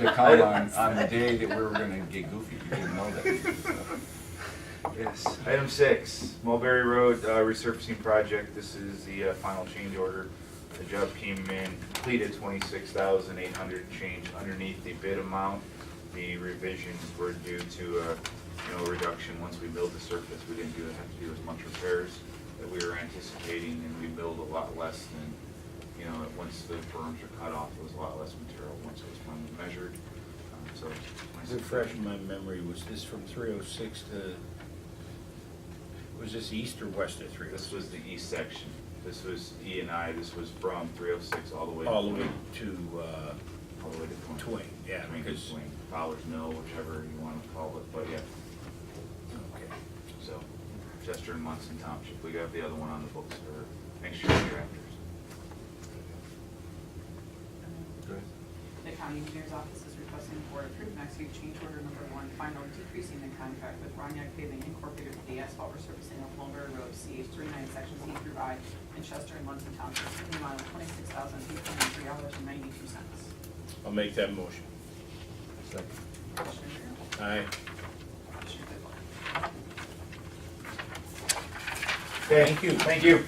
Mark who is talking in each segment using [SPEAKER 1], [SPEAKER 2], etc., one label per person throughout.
[SPEAKER 1] The call on, on the day that we were gonna get goofy, you didn't know that.
[SPEAKER 2] Yes. Item six, Mulberry Road uh, resurfacing project. This is the uh, final change order. The job came in completed twenty-six thousand eight hundred change underneath the bid amount. The revisions were due to, uh, you know, reduction once we build the surface. We didn't do, have to do as much repairs that we were anticipating and we build a lot less than, you know, once the berms are cut off, it was a lot less material once it was finally measured. Um, So. 26,000.
[SPEAKER 3] Refresh my memory, was this from three oh six to, was this east or west of three oh
[SPEAKER 2] This
[SPEAKER 3] six?
[SPEAKER 2] was the east section. This was E and I, this was from three oh six all the way. to
[SPEAKER 3] All the way
[SPEAKER 2] Twain.
[SPEAKER 3] to, uh,
[SPEAKER 2] All the way to Twain.
[SPEAKER 3] Twain, yeah,
[SPEAKER 2] Twain,
[SPEAKER 3] because-
[SPEAKER 2] Twain, Fowler's Mill, whichever you want to call it, but yeah,
[SPEAKER 3] okay.
[SPEAKER 2] so Chester and Munson Township, we got the other one on the books for next year, year after.
[SPEAKER 4] The county engineer's office is requesting the board approve and execute change order number one, final decreasing the contract with Roniak Paving Incorporated for the asphalt resurfacing of Mulberry Road, CH three-nine, section C through I, in Chester and Munson Townships, in the amount of twenty-six thousand eight hundred and three dollars and ninety-two cents.
[SPEAKER 3] I'll make that motion.
[SPEAKER 4] Commissioner
[SPEAKER 3] Aye.
[SPEAKER 4] Darrow? Commissioner Claypool?
[SPEAKER 3] Thank you.
[SPEAKER 2] Thank you.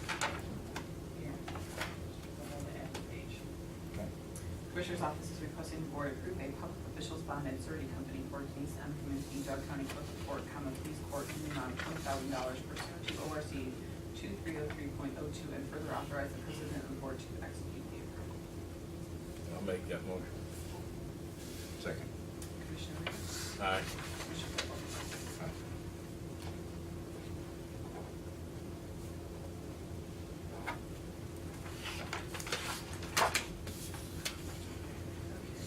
[SPEAKER 4] Here. Hold on to add the page. Commissioner's office is requesting the board approve a public officials bond and surety company for Denise M. Kaminsky, Dog County Clerk of Court, comma, Police Court, in the amount of twenty thousand dollars pursuant to ORC two three oh three point oh two, and further authorize the president of the board to execute the approval.
[SPEAKER 3] I'll make that motion.
[SPEAKER 1] Second.
[SPEAKER 4] Commissioner Rea?
[SPEAKER 3] Aye.
[SPEAKER 4] Commissioner Claypool?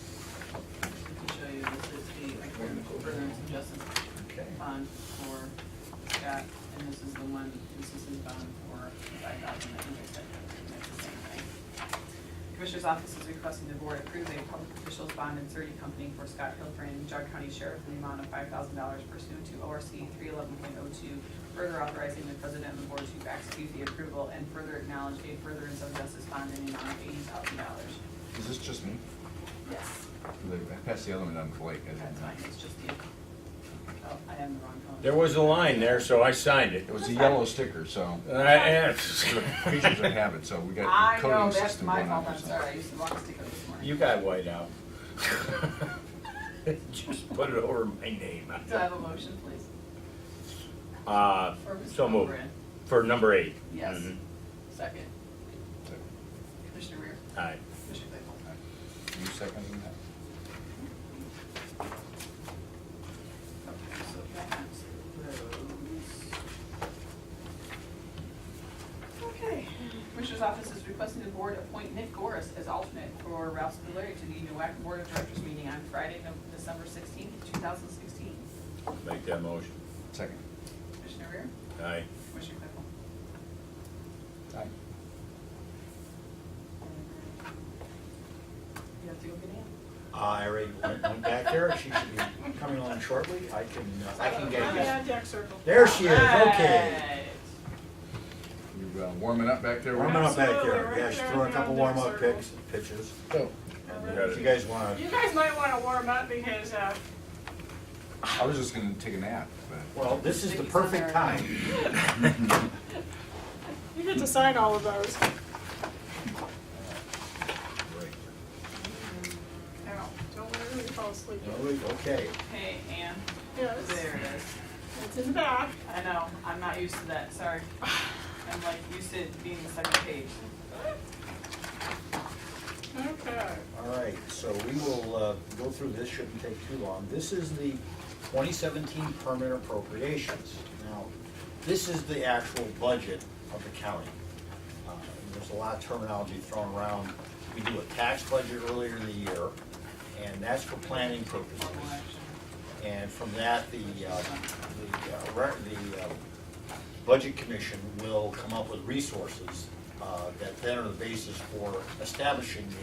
[SPEAKER 4] To show you, this is the agreement for furtherance of justice
[SPEAKER 1] Okay.
[SPEAKER 4] bond for Scott, and this is the one, this is his bond for five thousand that he just said, that's the same thing. Commissioner's office is requesting the board approve a public officials bond and surety company for Scott Hilton, Jog County Sheriff, in the amount of five thousand dollars pursuant to ORC three eleven point oh two, further authorizing the president of the board to execute the approval and further acknowledge a furtherance of justice bond in the amount of eighty thousand dollars.
[SPEAKER 1] Is this just me?
[SPEAKER 4] Yes.
[SPEAKER 1] I passed the other one down to Blake. I didn't
[SPEAKER 4] That's
[SPEAKER 1] know.
[SPEAKER 4] fine, it's just the, oh, I am the wrong color.
[SPEAKER 3] There was a line there, so I signed it.
[SPEAKER 1] It was a yellow sticker, so,
[SPEAKER 3] I, eh,
[SPEAKER 1] creatures of habit, so we got
[SPEAKER 4] I
[SPEAKER 1] a
[SPEAKER 4] know,
[SPEAKER 1] coding
[SPEAKER 4] that's
[SPEAKER 1] system
[SPEAKER 4] my
[SPEAKER 1] going on.
[SPEAKER 4] fault, I'm sorry, I used the wrong sticker this morning.
[SPEAKER 3] you got white out. Just put it over my name.
[SPEAKER 4] Do I have a motion, please?
[SPEAKER 3] Uh,
[SPEAKER 4] For Mr.
[SPEAKER 3] so moved.
[SPEAKER 4] Moran?
[SPEAKER 3] For number eight.
[SPEAKER 4] Yes.
[SPEAKER 3] Mhm.
[SPEAKER 4] Second.
[SPEAKER 1] Second.
[SPEAKER 4] Commissioner Rear?
[SPEAKER 3] Aye.
[SPEAKER 4] Commissioner Claypool?
[SPEAKER 1] You seconding that?
[SPEAKER 4] Okay, so that those. Okay, Commissioner's Office is requesting the board appoint Nick Goris as alternate for Ralph Spillier to the NUAC Board of Directors meeting on Friday, Nov- December sixteenth, two thousand sixteen.
[SPEAKER 3] Make that motion.
[SPEAKER 1] Second.
[SPEAKER 4] Commissioner Rear?
[SPEAKER 3] Aye.
[SPEAKER 4] Commissioner Claypool?
[SPEAKER 1] Aye.
[SPEAKER 4] You have to go get in.
[SPEAKER 5] I already went, went back there, she should be coming along shortly, I can, uh, I can get it.
[SPEAKER 4] circle.
[SPEAKER 5] There she is, okay.
[SPEAKER 1] You uh, warming up back there?
[SPEAKER 5] Warming
[SPEAKER 1] Wayne?
[SPEAKER 5] up back
[SPEAKER 6] Absolutely,
[SPEAKER 5] there,
[SPEAKER 6] right
[SPEAKER 5] yeah, she
[SPEAKER 6] there
[SPEAKER 5] threw
[SPEAKER 6] on
[SPEAKER 5] a
[SPEAKER 6] the
[SPEAKER 5] couple
[SPEAKER 6] deck
[SPEAKER 5] warm up
[SPEAKER 6] circle.
[SPEAKER 5] pics, pitches,
[SPEAKER 1] Go.
[SPEAKER 5] and uh, if you guys wanna,
[SPEAKER 6] You guys might want to warm up because, uh,
[SPEAKER 1] I was just gonna take a nap, but
[SPEAKER 5] well, this is the perfect time.
[SPEAKER 6] you get to sign all of those. Ow, don't let everybody fall asleep.
[SPEAKER 5] Okay,
[SPEAKER 4] Hey, Ann,
[SPEAKER 6] Yes,
[SPEAKER 4] there it is.
[SPEAKER 6] it's in the back.
[SPEAKER 4] I know, I'm not used to that, sorry. I'm like used to it being the second page.
[SPEAKER 6] Okay.
[SPEAKER 5] all right, so we will, uh, go through this, shouldn't take too long. This is the twenty seventeen permanent appropriations. Now, this is the actual budget of the county. Uh, There's a lot of terminology thrown around. We do a tax budget earlier in the year, and that's for planning purposes.
[SPEAKER 4] One election.
[SPEAKER 5] And from that, the, uh, the, uh, re- the uh, Budget Commission will come up with resources uh, that then are the basis for establishing the